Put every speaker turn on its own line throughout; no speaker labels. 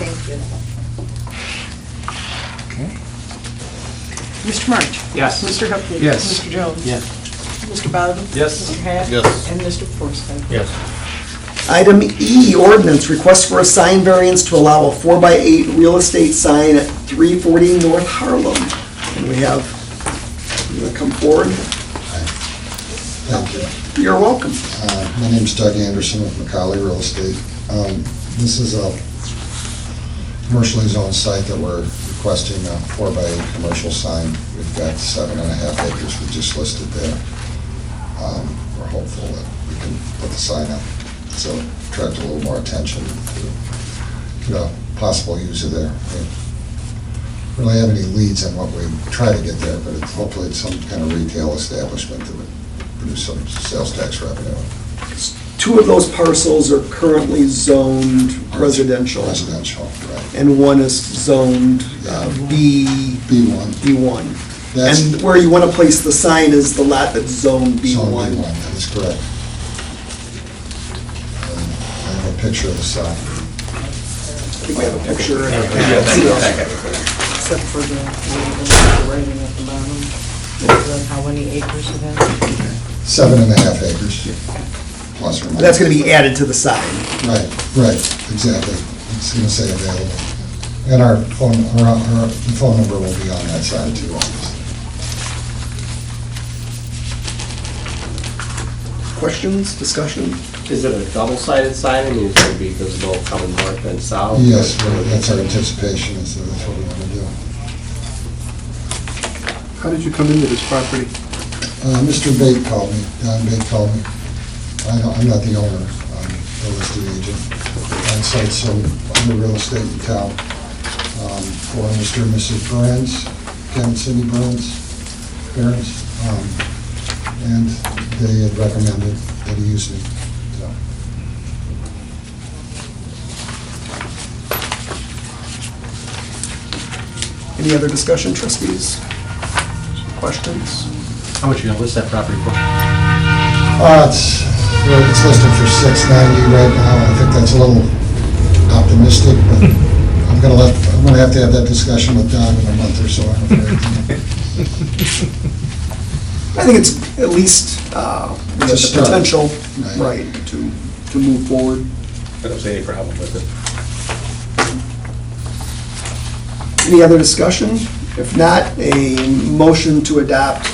amended.
Okay.
Mr. March?
Yes.
Mr. Hupkey?
Yes.
Mr. Jones?
Yes.
Mr. Bowden?
Yes.
Mr. Hack?
Yes.
And Mr. Forsythe?
Yes.
Item E, ordinance, request for a sign variance to allow a four-by-eight real estate sign at 340 North Harlem. And we have, you want to come forward?
Thank you.
You're welcome.
Uh, My name's Doug Anderson with McCauley Real Estate. Um, This is a commercially zoned site that we're requesting a four-by-eight commercial sign. We've got seven and a half acres, we just listed there. Um, We're hopeful that we can put the sign up, so attract a little more attention to the possible user there. We Really have any leads on what we try to get there, but it's hopefully it's some kind of retail establishment that would produce some sales tax revenue.
Two of those parcels are currently zoned residential,
Residential, right.
and one is zoned uh, B,
B1.
B1.
That's
And where you want to place the sign is the lot that's zoned
zone B1,
B1.
that is correct. And I have a picture of the sign.
I think we have a picture.
Except for the the writing at the bottom. How many acres it has?
Seven and a half acres, plus or minus.
That's going to be added to the sign.
Right, right, exactly. It's going to say available. And our phone, our, our the phone number will be on that side too, obviously.
Questions, discussion?
Is it a double-sided sign and it's going to be visible coming north and south?
Yes, well, that's our anticipation, is that that's what we want to do.
How did you come into this property?
Uh, Mr. Bate called me, Don Bate called me. I don't, I'm not the owner, I'm the listed agent. On site, so I'm the real estate in town um, for Mr. and Mrs. Burns, Kevin City Burns, parents. um, And they had recommended that he use me, so.
Any other discussion, trustees? Questions?
How much you gonna list that property for?
Uh, it's, well, it's listed for six ninety right now, I think that's a little optimistic, but I'm gonna let, I'm gonna have to have that discussion with Don in a month or so. I'm afraid.
I think it's at least, uh, we have
It's
the
a start.
potential,
Right.
right, to, to move forward.
I don't see any problem with it.
Any other discussion? If not, a motion to adopt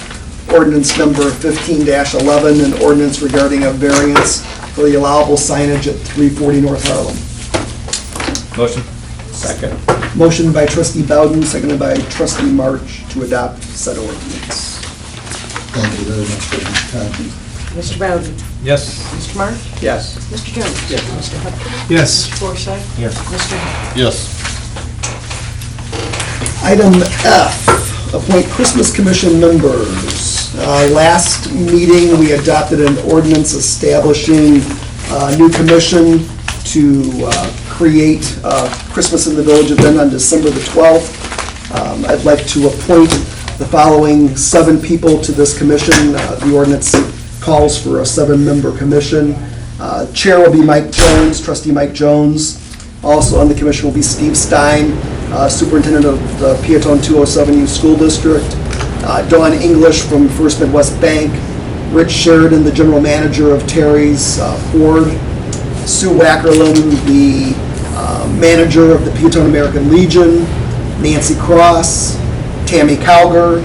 ordinance number fifteen eleven, an ordinance regarding a variance for the allowable signage at three forty North Harlem.
Motion. Second.
Motion by trustee Bowden, seconded by trustee March to adopt said ordinance.
Thank you very much for your time.
Mr. Bowden?
Yes.
Mr. March?
Yes.
Mr. Jones?
Yes.
Mr. Hupkey?
Yes.
Mr. Forsythe?
Yes.
Mr. Hack?
Yes.
Item F, appoint Christmas Commission members. Uh, Last meeting, we adopted an ordinance establishing a new commission to uh, create uh, Christmas in the Village event on December the 12th. Um, I'd like to appoint the following seven people to this commission. Uh, The ordinance calls for a seven-member commission. Uh, Chair will be Mike Jones, trustee Mike Jones. Also on the commission will be Steve Stein, uh, Superintendent of the Peatone 207 Youth School District, uh, Dawn English from First Midwest Bank, Rich Sheridan, the General Manager of Terry's uh, Ford, Sue Wackerlin, the uh, Manager of the Peatone American Legion, Nancy Cross, Tammy Cowger,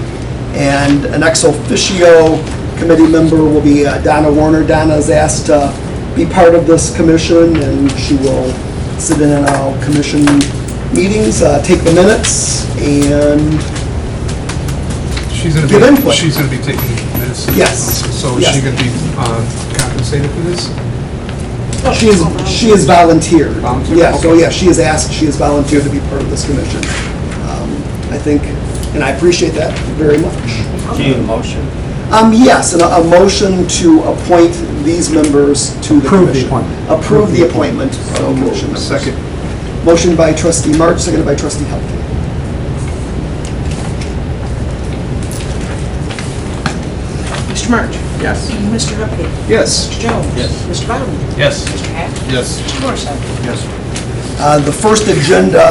and an ex officio committee member will be uh, Donna Warner. Donna is asked to be part of this commission, and she will sit in on our commission meetings, uh, take the minutes, and
She's gonna
Give input.
be, she's gonna be taking minutes.
Yes.
So is she
Yes.
gonna be uh, compensated for this?
she is, she is volunteered.
Volunteer,
Yeah, so
okay.
yeah, she is asked, she is volunteered to be part of this commission. Um, I think, and I appreciate that very much.
Do you motion?
Um, yes, and a a motion to appoint these members to the
Approve the
commission.
appointment.
Approve the appointment of commission members.
Second.
Motion by trustee March, seconded by trustee Helpke.
Mr. March?
Yes.
Mr. Hupkey?
Yes.
Mr. Jones?
Yes.
Mr. Bowden?
Yes.
Mr. Hack?
Yes.
Mr. Forsythe?
Uh, The first agenda